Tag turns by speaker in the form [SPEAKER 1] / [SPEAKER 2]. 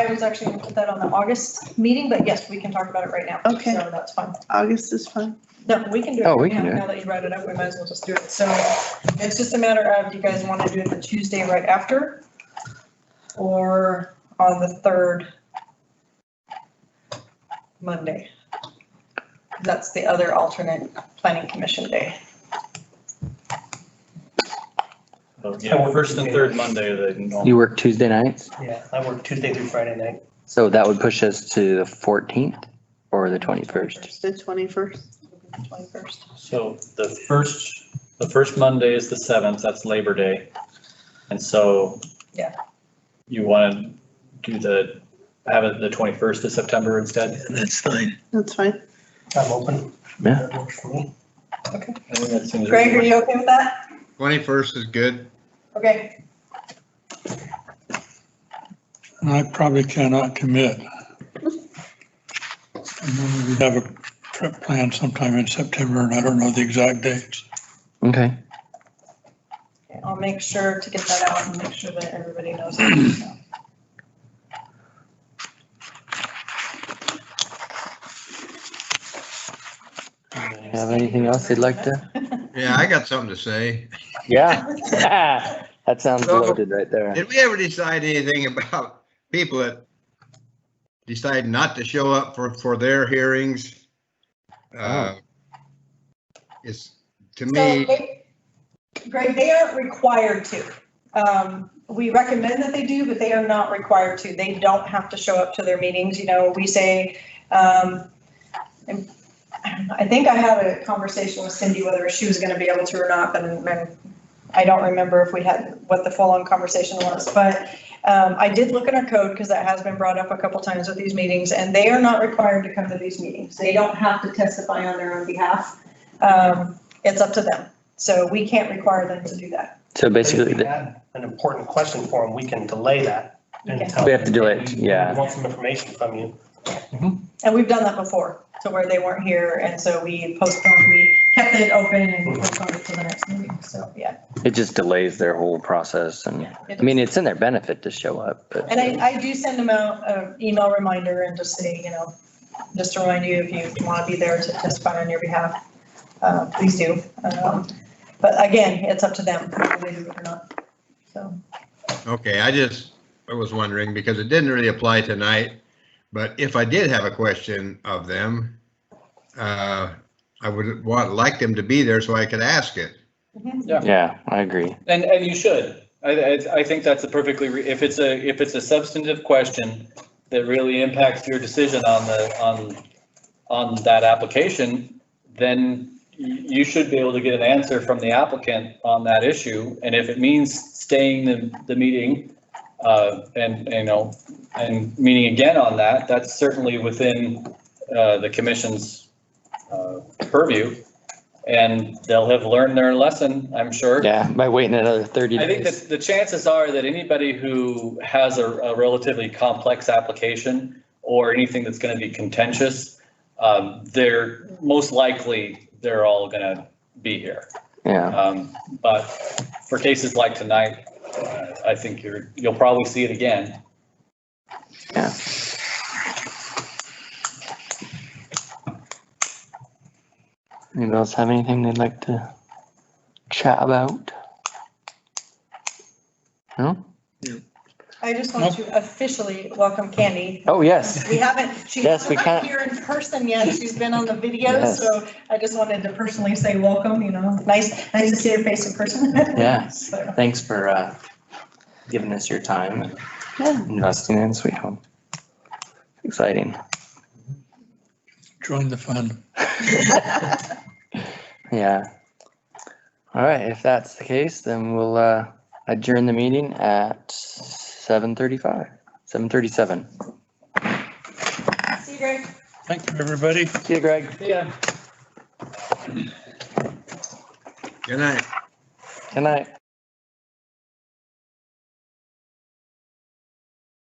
[SPEAKER 1] I was actually gonna put that on the August meeting, but yes, we can talk about it right now.
[SPEAKER 2] Okay.
[SPEAKER 1] So that's fine.
[SPEAKER 2] August is fine.
[SPEAKER 1] No, we can do it.
[SPEAKER 3] Oh, we
[SPEAKER 1] right
[SPEAKER 3] can
[SPEAKER 1] now.
[SPEAKER 3] do it.
[SPEAKER 1] Now that you brought it up, we might as well just do it. So it's just a matter of, do you guys want to do it the Tuesday right after? Or on the third Monday? That's the other alternate planning commission day.
[SPEAKER 4] So, Yeah, first and third Monday, they
[SPEAKER 3] You
[SPEAKER 4] normal.
[SPEAKER 3] work Tuesday nights,
[SPEAKER 5] Yeah, I work Tuesday through Friday night.
[SPEAKER 3] so that would push us to the fourteenth or the twenty-first.
[SPEAKER 2] The twenty-first.
[SPEAKER 1] Twenty-first.
[SPEAKER 4] So the first, the first Monday is the seventh, that's Labor Day. And so.
[SPEAKER 1] Yeah.
[SPEAKER 4] You want to do the, have it the twenty-first of September instead?
[SPEAKER 5] That's fine.
[SPEAKER 2] That's fine.
[SPEAKER 5] I'm open.
[SPEAKER 3] Yeah.
[SPEAKER 5] That works for me.
[SPEAKER 4] I think that seems
[SPEAKER 1] Greg, are
[SPEAKER 4] reasonable.
[SPEAKER 1] you okay with that?
[SPEAKER 6] Twenty-first is good.
[SPEAKER 1] Okay,
[SPEAKER 7] I probably cannot commit. And then We have a trip planned sometime in September, and I don't know the exact dates.
[SPEAKER 3] Okay,
[SPEAKER 1] Okay, I'll make sure to get that out and make sure that everybody knows. that.
[SPEAKER 3] have anything else you'd like to?
[SPEAKER 6] Yeah, I got something to say.
[SPEAKER 3] Yeah. That sounds
[SPEAKER 6] So-
[SPEAKER 3] loaded right there.
[SPEAKER 6] Did we ever decide anything about people that decide not to show up for, for their hearings? Uh, It's, to
[SPEAKER 1] So
[SPEAKER 6] me,
[SPEAKER 1] they- Greg, they aren't required to. Um, We recommend that they do, but they are not required to. They don't have to show up to their meetings, you know, we say, um, and I think I had a conversation with Cindy whether she was gonna be able to or not, but and I don't remember if we had, what the full-on conversation was, but um, I did look in our code, because that has been brought up a couple times with these meetings, and they are not required to come to these meetings. They don't have to testify on their own behalf. Um, it's up to them. So we can't require them to do that.
[SPEAKER 3] So basically,
[SPEAKER 5] If we
[SPEAKER 3] th-
[SPEAKER 5] had An important question for them, we can delay that until.
[SPEAKER 3] we have to do it, yeah.
[SPEAKER 5] We Want some information from you.
[SPEAKER 1] And we've done that before, to where they weren't here, and so we postponed, we kept it open and we postponed it to the next meeting, so, yeah.
[SPEAKER 3] It just delays their whole process and, I mean, it's in their benefit to show up, but.
[SPEAKER 1] And I, I do send them out an email reminder and just say, you know, just to remind you, if you want to be there to testify on your behalf, uh, please do. Um, But again, it's up to them, whether they do it or not, so.
[SPEAKER 6] okay, I just, I was wondering, because it didn't really apply tonight. But if I did have a question of them, uh, I would want, like them to be there so I could ask it.
[SPEAKER 3] Yeah, I agree.
[SPEAKER 8] And, and you should. I, I, I think that's a perfectly, re- if it's a, if it's a substantive question that really impacts your decision on the, on, on that application, then you, you should be able to get an answer from the applicant on that issue. And if it means staying the, the meeting, uh, and, you know, and meeting again on that, that's certainly within, uh, the commission's, uh, purview. And they'll have learned their lesson, I'm sure.
[SPEAKER 3] Yeah, by waiting another thirty
[SPEAKER 8] I think
[SPEAKER 3] days.
[SPEAKER 8] that the chances are that anybody who has a a relatively complex application or anything that's going to be contentious, um, they're, most likely, they're all going to be here.
[SPEAKER 3] Yeah,
[SPEAKER 8] Um, But for cases like tonight, uh, I think you're, you'll probably see it again.
[SPEAKER 3] yeah. Anyone else have anything they'd like to chat about? No?
[SPEAKER 1] I just want to officially welcome Candy
[SPEAKER 3] Oh, yes.
[SPEAKER 1] We haven't, she's
[SPEAKER 3] Yes, we
[SPEAKER 1] not
[SPEAKER 3] can't-
[SPEAKER 1] here in person yet. She's been on the video,
[SPEAKER 3] Yes.
[SPEAKER 1] so I just wanted to personally say welcome, you know, nice, nice to see your face in person.
[SPEAKER 3] Yeah.
[SPEAKER 1] So,
[SPEAKER 3] Thanks for uh, giving us your time and investing in Sweet Home. Exciting.
[SPEAKER 7] Join the fun.
[SPEAKER 3] Yeah. All right, if that's the case, then we'll uh, adjourn the meeting at seven thirty-five, seven thirty-seven.
[SPEAKER 1] See you, Greg.
[SPEAKER 7] Thank you, everybody.
[SPEAKER 3] See you, Greg.
[SPEAKER 8] Yeah.
[SPEAKER 6] Good night.
[SPEAKER 3] Good night.